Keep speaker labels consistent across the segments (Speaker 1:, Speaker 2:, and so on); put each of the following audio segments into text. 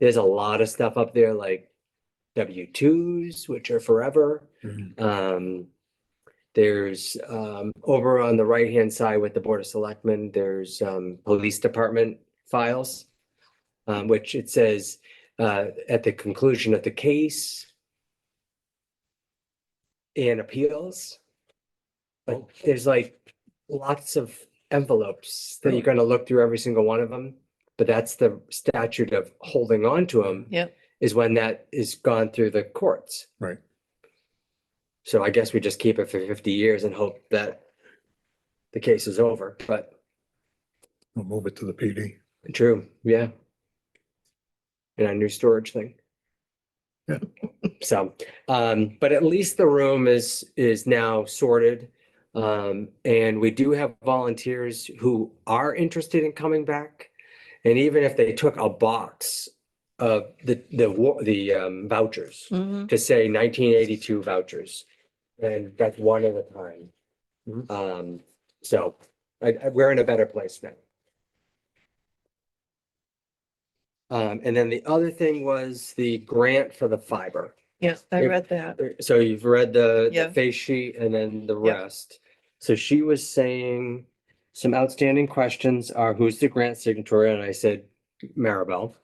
Speaker 1: there's a lot of stuff up there like W twos, which are forever.
Speaker 2: Mhm.
Speaker 1: Um, there's, um, over on the right-hand side with the Board of Selectmen, there's, um, Police Department files. Um, which it says, uh, at the conclusion of the case and appeals. But
Speaker 2: Oh.
Speaker 1: there's like lots of envelopes that you're
Speaker 2: Really?
Speaker 1: gonna look through every single one of them. But that's the statute of holding on to them
Speaker 3: Yep.
Speaker 1: is when that is gone through the courts.
Speaker 2: Right.
Speaker 1: So I guess we just keep it for fifty years and hope that the case is over, but
Speaker 2: We'll move it to the PD.
Speaker 1: true, yeah. And our new storage thing.
Speaker 2: Yeah.
Speaker 1: So, um, but at least the room is, is now sorted. Um, and we do have volunteers who are interested in coming back. And even if they took a box of the, the, wa- the um, vouchers,
Speaker 3: Mhm.
Speaker 1: to say nineteen eighty-two vouchers. And that's one at a time.
Speaker 2: Mhm.
Speaker 1: Um, so I, I- we're in a better place now. Um, and then the other thing was the grant for the fiber.
Speaker 3: Yeah, I
Speaker 1: If-
Speaker 3: read that.
Speaker 1: So you've read the, the
Speaker 3: Yeah.
Speaker 1: face sheet and then the
Speaker 3: Yeah.
Speaker 1: rest. So she was saying, some outstanding questions are who's the grant signatory? And I said, Maribel,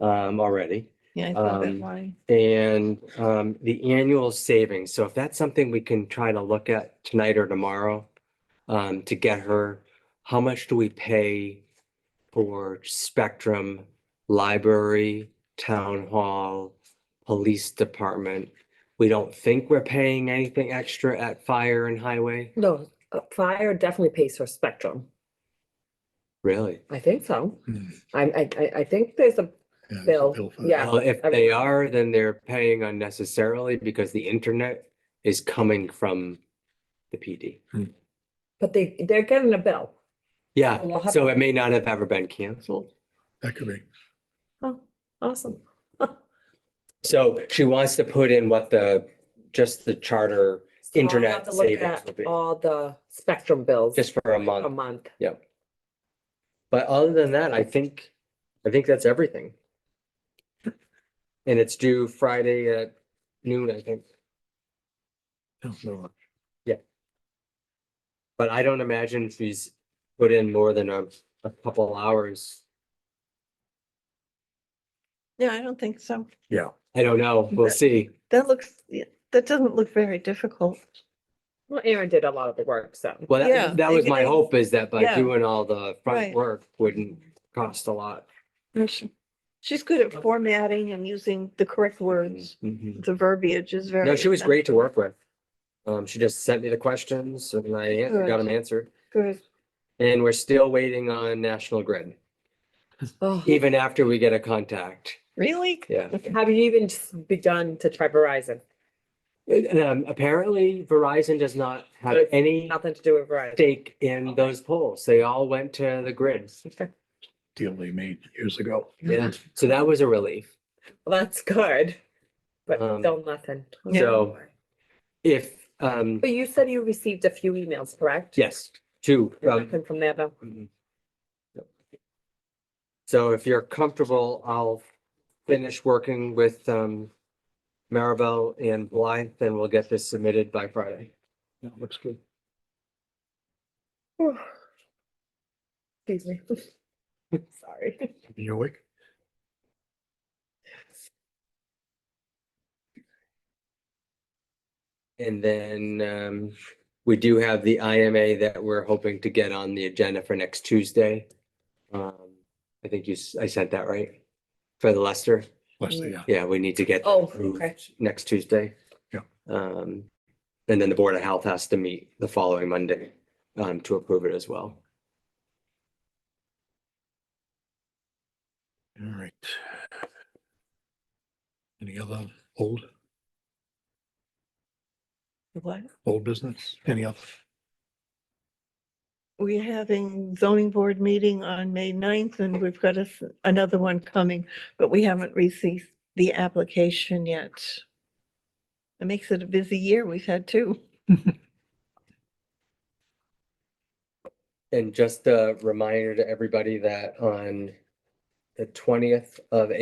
Speaker 1: um, already.
Speaker 3: Yeah, I saw that
Speaker 1: um,
Speaker 3: line.
Speaker 1: And um, the annual savings, so if that's something we can try to look at tonight or tomorrow um, to get her, how much do we pay for Spectrum, library, town hall, police department? We don't think we're paying anything extra at fire and highway,
Speaker 4: No, uh, fire definitely pays for spectrum.
Speaker 1: really?
Speaker 4: I think so.
Speaker 2: Hmm.
Speaker 4: I, I, I- I think there's a,
Speaker 2: Yeah, there's a
Speaker 4: Bill,
Speaker 2: for that.
Speaker 4: yeah.
Speaker 1: Well, if
Speaker 4: I-
Speaker 1: they are, then they're paying unnecessarily because the internet is coming from the PD.
Speaker 4: but they, they're getting a bill.
Speaker 1: Yeah,
Speaker 4: Well, how
Speaker 1: so it may not have ever been canceled.
Speaker 2: That could be.
Speaker 4: Oh, awesome.
Speaker 1: So she wants to put in what the, just the charter,
Speaker 4: So I'll
Speaker 1: Internet
Speaker 4: have to look
Speaker 1: savings
Speaker 4: at
Speaker 1: would be-
Speaker 4: All the spectrum bills
Speaker 1: just for a
Speaker 4: a
Speaker 1: month.
Speaker 4: month.
Speaker 1: But other than that, I think, I think that's everything. And it's due Friday at noon, I think.
Speaker 2: Yeah, so,
Speaker 1: But I don't imagine she's put in more than a, a couple hours.
Speaker 3: Yeah, I don't think so.
Speaker 1: I don't know, we'll
Speaker 3: Okay.
Speaker 1: see.
Speaker 3: That looks, yeah, that doesn't look very difficult.
Speaker 4: Well, Aaron did a lot of the work, so.
Speaker 1: Well,
Speaker 3: Yeah,
Speaker 1: that, that was my
Speaker 3: okay.
Speaker 1: hope is that by
Speaker 3: Yeah.
Speaker 1: doing all the front
Speaker 3: Right.
Speaker 1: work wouldn't cost a lot.
Speaker 3: She's good at formatting and using the correct words.
Speaker 1: Mhm.
Speaker 3: The verbiage is very.
Speaker 1: No, she was great to work with. Um, she just sent me the questions and I an- got
Speaker 3: Good.
Speaker 1: them answered.
Speaker 3: Good.
Speaker 1: And we're still waiting on National Grid,
Speaker 4: Oh,
Speaker 1: even after we get a contact.
Speaker 3: Really?
Speaker 1: Yeah.
Speaker 4: Have you even just begun to try Verizon?
Speaker 1: And, um, apparently Verizon does not have
Speaker 4: Good.
Speaker 1: any
Speaker 4: Nothing to do with Verizon.
Speaker 1: stake in those polls. They all went to the grid.
Speaker 4: Okay,
Speaker 2: Deal they made years ago.
Speaker 1: Yeah. So that was a relief.
Speaker 4: Well, that's good, but
Speaker 1: Um,
Speaker 4: still nothing.
Speaker 3: Yeah.
Speaker 1: So if, um,
Speaker 4: But you said you received a few emails, correct?
Speaker 1: yes, two, um,
Speaker 4: Nothing from there though.
Speaker 1: Mhm. Yep. So if you're comfortable, I'll finish working with um Maribel and Blythe, and we'll get this submitted by Friday.
Speaker 2: Yeah, looks good.
Speaker 4: Excuse me. Sorry.
Speaker 2: You awake?
Speaker 1: And then um we do have the IMA that we're hoping to get on the agenda for next Tuesday. Um, I think you, s- I sent that right? For the Lester?
Speaker 2: Leslie, yeah.
Speaker 1: Yeah, we need to get. that
Speaker 4: Oh,
Speaker 1: approved
Speaker 4: okay.
Speaker 1: Next Tuesday.
Speaker 2: Yeah.
Speaker 1: Um, and then the Board of Health has to meet the following Monday, um, to approve it as well.
Speaker 2: All right. Any other old,
Speaker 3: What?
Speaker 2: old business? Any other?
Speaker 3: We're having zoning board meeting on May 9th and we've got a s another one coming, but we haven't received the application yet. It makes it a busy year. We've had two.
Speaker 1: And just a reminder to everybody that on the twentieth of